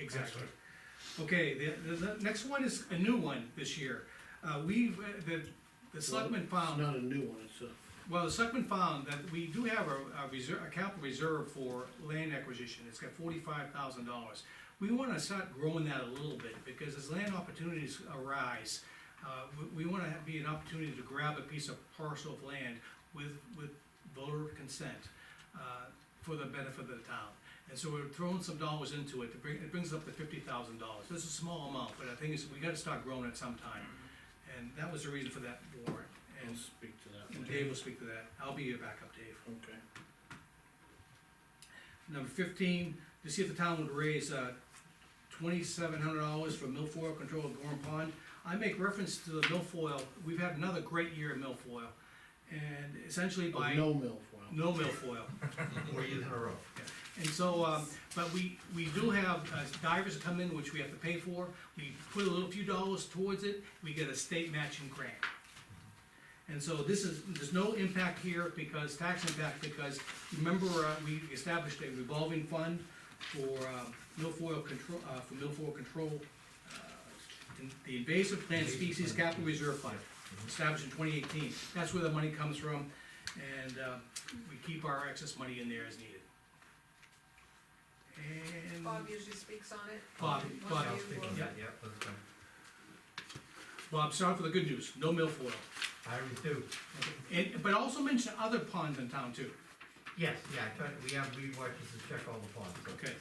Exactly. Okay, the, the, the next one is a new one this year. Uh, we've, uh, the, the selectmen Well, found, It's not a new one, it's a, well, the selectmen found that we do have a, a reserve, a capital reserve for land acquisition. It's got forty-five thousand dollars. We wanna start growing that a little bit, because as land opportunities arise, uh, we, we wanna have- be an opportunity to grab a piece of parcel of land with, with voter consent, uh, for the benefit of the town. And so we're throwing some dollars into it, to bring, it brings up to fifty thousand dollars, that's a small amount, but I think it's, we gotta start growing it sometime. And that was the reason for that warrant, I'll and speak to that. and one. Dave will speak to that, I'll be your backup, Dave. Okay. Number fifteen, to see if the town would raise, uh, twenty-seven hundred dollars for milfoil control of Gorm Pond. I make reference to the milfoil, we've had another great year in milfoil, and essentially But by, Oh, No milfoil. no milfoil. Four years in a row. And so, um, but we, we do have uh, divers come in, which we have to pay for, we put a little few dollars towards it, we get a state matching grant. And so this is, there's no impact here because, tax impact, because remember, uh, we established a revolving fund for, um, milfoil control, uh, for milfoil control, uh, in- the invasive plant species capital reserve fund, established in twenty eighteen, that's where the money comes from, and, uh, we keep our excess money in there as needed. And Bob usually speaks on it. Bob, One Bob, of I'll you speak will. on that, yeah, that's fine. Bob, start off with the good news, no milfoil. I always do. And, but also mention other ponds in town too, Yes, yeah, I tried, we have weed whackers to check all the ponds, so. okay?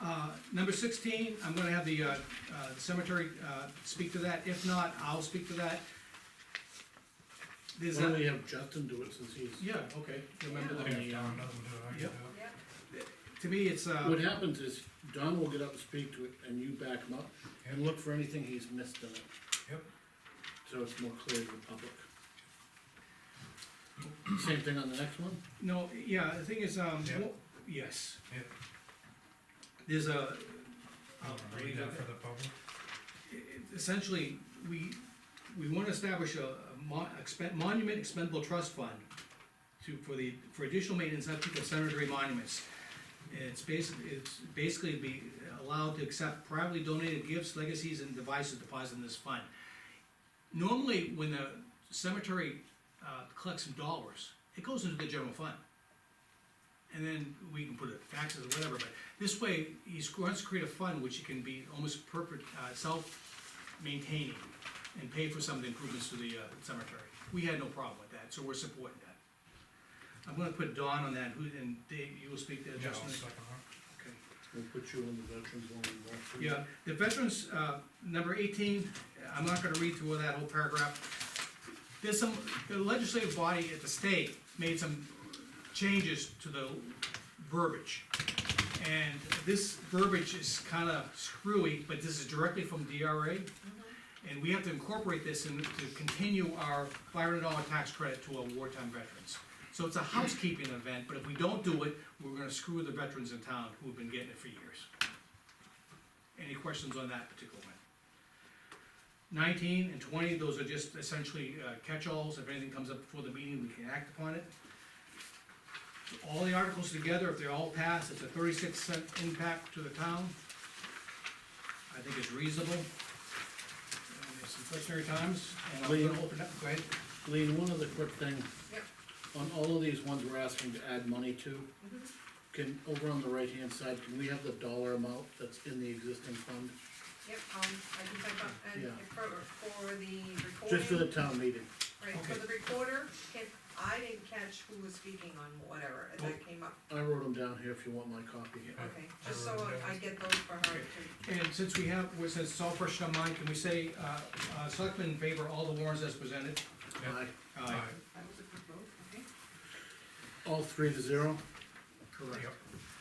Uh, number sixteen, I'm gonna have the, uh, uh, cemetery, uh, speak to that, if not, I'll speak to that. Why There's don't a, we have Justin do it since he's, uh, yeah, okay, remember Yeah. that. If Don doesn't do it, I can do Yep. it. Yep, To me, it's, uh, what happens is Don will get up and speak to it and you back him up and look for anything he's missed in it. Yep. So it's more clear to the public. Same thing on the next one? no, yeah, the thing is, um, Yeah. wo- yes. Yeah. There's a. I'll read that for the public. it- essentially, we, we wanna establish a, a mon- expen- monument expendable trust fund to, for the, for additional maintenance of the cemetery monuments. It's basically, it's basically be allowed to accept privately donated gifts, legacies, and devices deposited in this fund. Normally, when the cemetery, uh, collects some dollars, it goes into the general fund. And then we can put it taxes or whatever, but this way, he's going to create a fund which can be almost perpet, uh, self-maintaining and pay for some of the improvements to the uh, cemetery. We had no problem with that, so we're supporting that. I'm gonna put Don on that, who, and Dave, you will speak to that, Yeah, I'll Justin? second that. Okay. We'll put you on the veterans one. and we'll see. Yeah, the veterans, uh, number eighteen, I'm not gonna read through that whole paragraph. There's some, the legislative body at the state made some changes to the verbiage. And this verbiage is kinda screwy, but this is directly from DRA. And we have to incorporate this and to continue our five hundred dollar tax credit to our wartime veterans. So it's a housekeeping event, but if we don't do it, we're gonna screw the veterans in town who have been getting it for years. Any questions on that particular one? Nineteen and twenty, those are just essentially uh, catch-alls, if anything comes up before the meeting, we can act upon it. All the articles together, if they all pass, it's a thirty-six cent impact to the town. I think it's reasonable. And There's inflationary times, and I'm Lee? gonna open up, go ahead. Lean, one other quick thing. Yep. On all of these ones we're asking to add money to, can, over on the right-hand side, can we have the dollar amount that's in the existing fund? yep, um, I can type up, and Yeah. for, for the Just for the recording, town meeting. right, Okay. for the recorder, can, I didn't catch who was speaking on whatever, and that came up, I wrote them down here if you want my copy. I- okay, I just so wrote it I down. get those for her too. And since we have, well, since it's all fresh on mind, can we say, uh, uh, selectmen in favor of all the warrants as presented? Yeah. Aye. Aye, That was a good vote, okay? All three to zero. Correct. yep.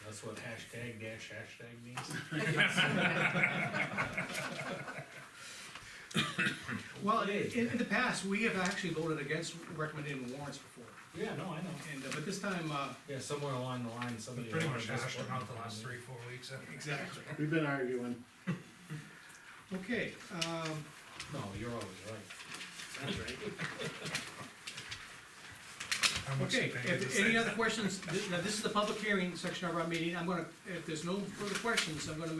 That's what hashtag dash hashtag means. Well, in, in in the past, we have actually voted against recommending warrants before, Yeah, no, I know. and, uh, but this time, uh, Yeah, somewhere along the line, somebody. We've pretty wanted much this hashed them one. out the last three, four weeks. eh? exactly. We've been arguing. Okay, um, No, you're always right. That's right. How much okay, they paid if to any say other questions, th- now, this is the public hearing section of our meeting, I'm gonna, if there's no further questions, I'm gonna